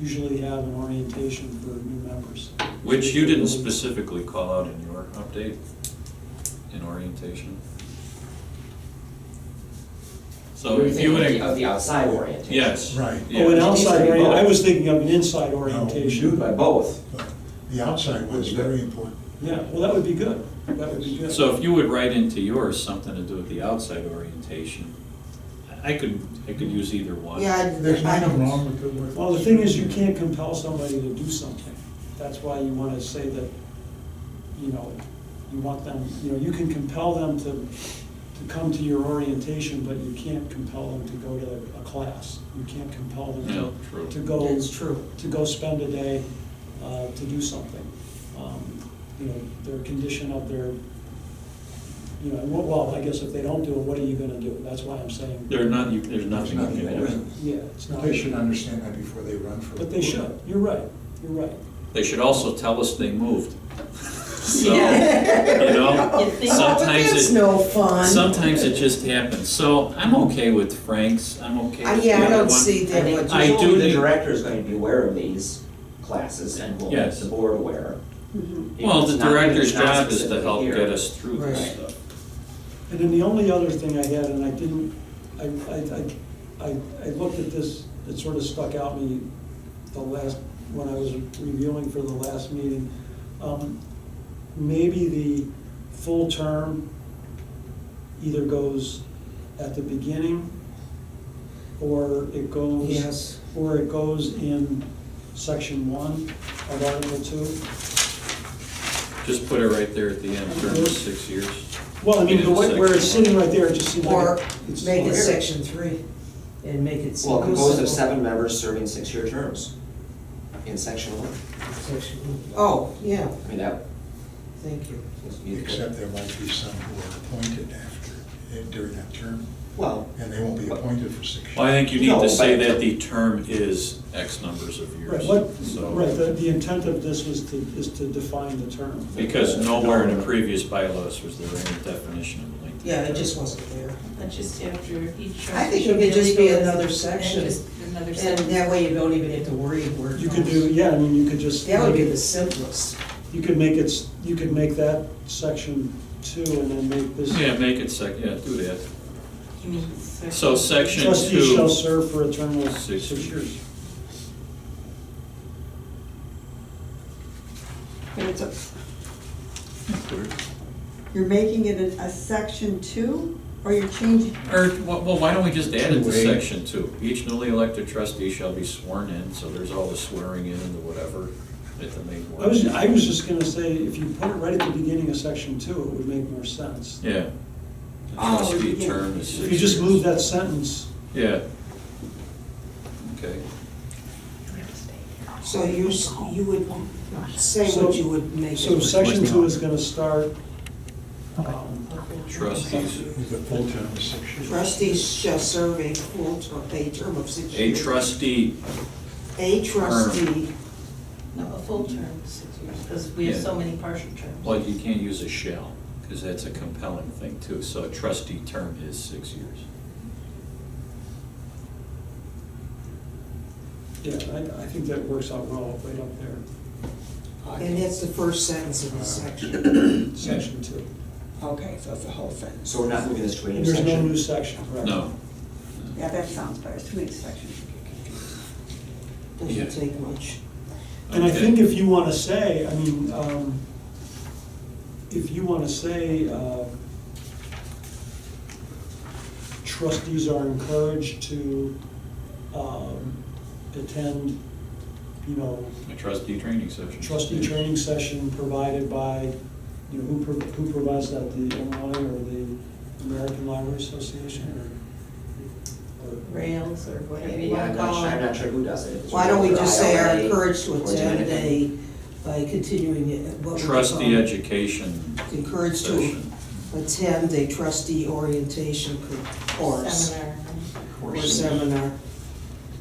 usually have an orientation for new members. Oh, Which you didn't specifically call out in your update, in orientation. So You're if you thinking would, Of the outside orientation. yes. Right. yeah. Oh, an outside, Basically orient- I both. was thinking of an inside orientation. do. By both. But The outside was very important. Yeah, well, that would be good. That would be good. So if you would write into yours something to do with the outside orientation, I could, I could use either one. Yeah, There's I- I nothing don't. wrong with the word. Well, the thing is, you can't compel somebody to do something. That's why you want to say that, you know, you want them, you know, you can compel them to, to come to your orientation, but you can't compel them to go to a class. You can't compel Yeah, them true. to, to go. That's true. To go spend a day, uh, to do something. Um, You know, their condition of their, you know, well, I guess if they don't do it, what are you gonna do? That's why I'm saying, There are not, you- there's nothing. There's you can nothing. do. yeah, it's not. They should understand that before they run for. But they should, you're right, you're right. They should also tell us they moved. So, Yeah. you know, You think- Oh, but sometimes that's it, no fun. sometimes it just happens. So I'm okay with Frank's, I'm okay I- with the Yeah, I other don't one. see I that think much. I do presumably the need- director is going to be aware of these classes and will make Yes. the board aware. Mm-hmm. If Well, it's the not- if director's it's not job is to specifically help here. get us through this Right. stuff. And then the only other thing I had, and I didn't, I, I, I, I I looked at this, it sort of stuck out me the last, when I was reviewing for the last meeting. Um, Maybe the full term either goes at the beginning, or it goes. Yes. Or it goes in section one of Article Two. Just put it right there at the end, term is six years. Well, I mean, the way, where it's Section one. sitting right there, it just seems like. Or it's- make it section three and make it. Well, composed simple. of seven members serving six-year terms in section one. Section one. Oh, yeah, I mean, that. thank you. Except there might be some who are appointed after, eh, during that term, Well, and they won't be appointed for six years. Well, I think you need No, to say but- that the term is X numbers of Right, years. what, so- right, the, the intent of this was to, is to define the term. Because nowhere in the previous bylaws was there any definition of length. Yeah, it just wasn't there. But just after each. I think it should could just be legal another and section. just Another And section. that way you don't even have to worry where. it You could goes. do, yeah, I mean, you could just. That would be the simplest. You could make it, s- you could make that section two and then make this. Yeah, make it sec, yeah, do that. You mean section- So section Trustees shall two, serve for a term of Six six years. years. But it's a- You're making it a, a section two, or you're changing, or, well, well, why don't we just add it to Two-way. section two? Each newly elected trustee shall be sworn in, so there's all the swearing in and the whatever at the main one. I was, I was just gonna say, if you put it right at the beginning of section two, it would make more sense. Yeah. The Oh, Trustee yeah. term is six If you just years. move that sentence, Yeah. Okay. So you, s- you would say So- what you would make it. so section two is gonna start, um, Trustees, The full term is six years. Trustees shall serve a full term, a term of six a years. trustee, A trustee, No, a full term, six years, because we have Yeah. so many partial terms. well, you can't use a shall, because that's a compelling thing too, so a trustee term is six years. yeah, I, I think that works out well, right up there, and that's the first sentence of the section. section two. okay, so it's a whole sentence. so we're not moving this to a new And There's section. no new section, correct? No, Yeah, that sounds better, it's too many sections. Doesn't take much. And I Okay. think if you want to say, I mean, um, if you want to say, uh, trustees are encouraged to, um, attend, you know, a trustee training session. trustee training session provided by, you know, who, pro- who provides that, the Illinois or the American Library Association or? or- Rails or whatever you Maybe, want I'm to not, call sure- I'm it. not sure who does it. It's Why don't we whether just say are IRA encouraged to or attend a, Dominican. by continuing it, what would you call Trustee it? education Encouraged to- session. Attend a trustee orientation co- course Seminar. or Course. seminar.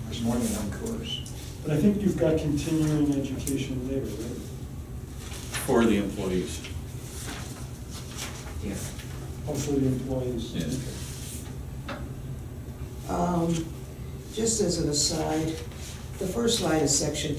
There's more than one course. But I think you've got continuing education later, right? For the employees, Yeah. Hopefully the employees. yeah. Um, Just as an aside, the first line of section